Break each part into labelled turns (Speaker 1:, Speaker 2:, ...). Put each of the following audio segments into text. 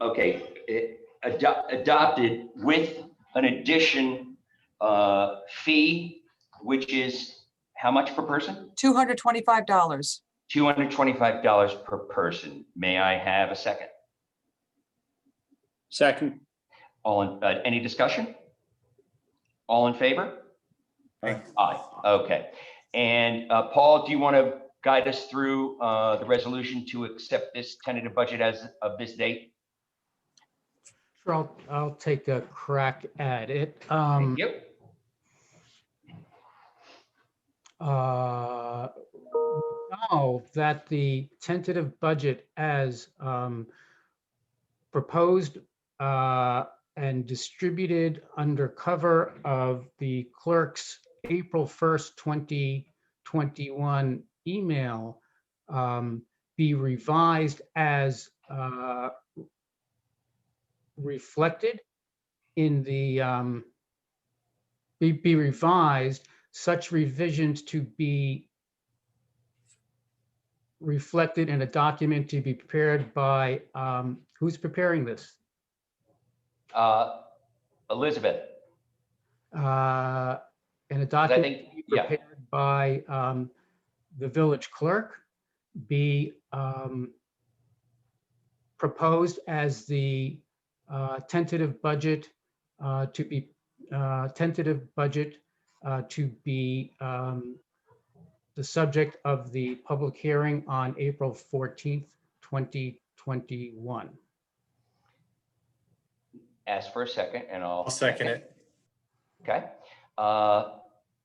Speaker 1: okay, eh, ado- adopted with an addition uh, fee, which is how much per person?
Speaker 2: $225.
Speaker 1: $225 per person. May I have a second?
Speaker 3: Second,
Speaker 1: All, in uh, any discussion? All in favor?
Speaker 3: Aye.
Speaker 1: Aye, okay. And uh, Paul, do you want to guide us through uh, the resolution to accept this tentative budget as of this date?
Speaker 4: Sure, I'll, I'll take a crack at it. Um,
Speaker 1: Thank you.
Speaker 4: uh, now that the tentative budget as um, proposed uh, and distributed under cover of the clerk's April 1st, 2021 email um, be revised as uh, reflected in the, um, be be revised such revisions to be reflected in a document to be prepared by, um, who's preparing this?
Speaker 1: Uh, Elizabeth,
Speaker 4: Uh, In a
Speaker 1: 'cause I
Speaker 4: document
Speaker 1: think, yeah.
Speaker 4: prepared by um, the village clerk be um, proposed as the uh, tentative budget uh, to be, uh, tentative budget uh, to be um, the subject of the public hearing on April 14th, 2021.
Speaker 1: ask for a second and I'll.
Speaker 3: I'll second it.
Speaker 1: Okay. Uh,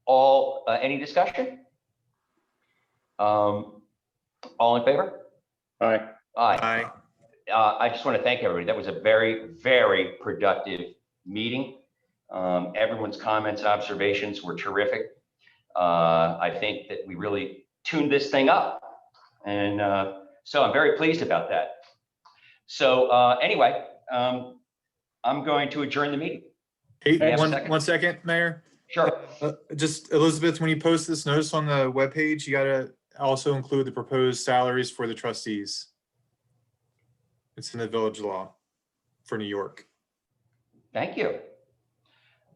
Speaker 1: All, uh, any discussion? Um, All in favor?
Speaker 3: Aye.
Speaker 1: Aye.
Speaker 5: Aye.
Speaker 1: Uh, I just want to thank everybody. That was a very, very productive meeting. Um, Everyone's comments, observations were terrific. Uh, I think that we really tuned this thing up. And uh, so I'm very pleased about that. So uh, anyway, um, I'm going to adjourn the meeting.
Speaker 5: Hey,
Speaker 1: Yes.
Speaker 5: one, one second, Mayor.
Speaker 1: Sure.
Speaker 5: Uh, Just Elizabeth, when you post this notice on the webpage, you gotta also include the proposed salaries for the trustees. It's in the village law for New York.
Speaker 1: Thank you.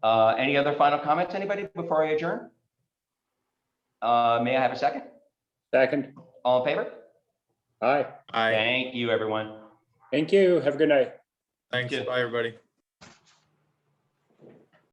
Speaker 1: Uh, Any other final comments, anybody, before I adjourn? Uh, May I have a second?
Speaker 3: Second,
Speaker 1: All in favor?
Speaker 3: aye.
Speaker 5: Aye,
Speaker 1: Thank you, everyone.
Speaker 3: Thank you. Have a good night.
Speaker 5: thanks.
Speaker 1: you.
Speaker 5: Bye, everybody.